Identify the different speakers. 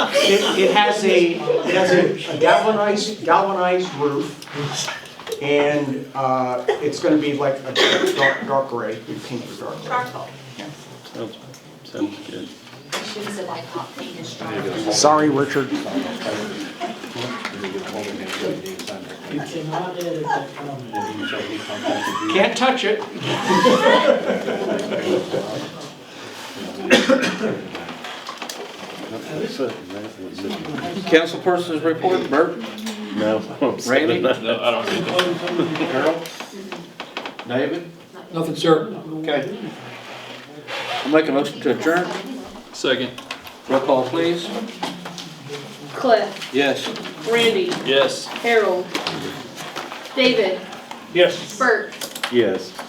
Speaker 1: It, it has a, it has a a galvanized, galvanized roof, and, uh, it's gonna be like a dark- dark, dark gray, we painted it dark gray.
Speaker 2: charcoal.
Speaker 3: Sounds sounds good.
Speaker 2: You should have said like hot paint is charcoal.
Speaker 1: Sorry, Richard.
Speaker 4: You cannot edit that comment.
Speaker 1: Can't touch it.
Speaker 5: Councilperson's report, Bert,
Speaker 3: No.
Speaker 5: Randy?
Speaker 6: No, I don't think
Speaker 5: Carol, David,
Speaker 7: Nothing, sir.
Speaker 5: okay. I'll make a motion to adjourn,
Speaker 6: Second,
Speaker 5: roll call please.
Speaker 8: Cliff,
Speaker 5: Yes.
Speaker 8: Randy,
Speaker 6: yes.
Speaker 8: Harold, David,
Speaker 4: Yes.
Speaker 8: Bert,
Speaker 3: Yes.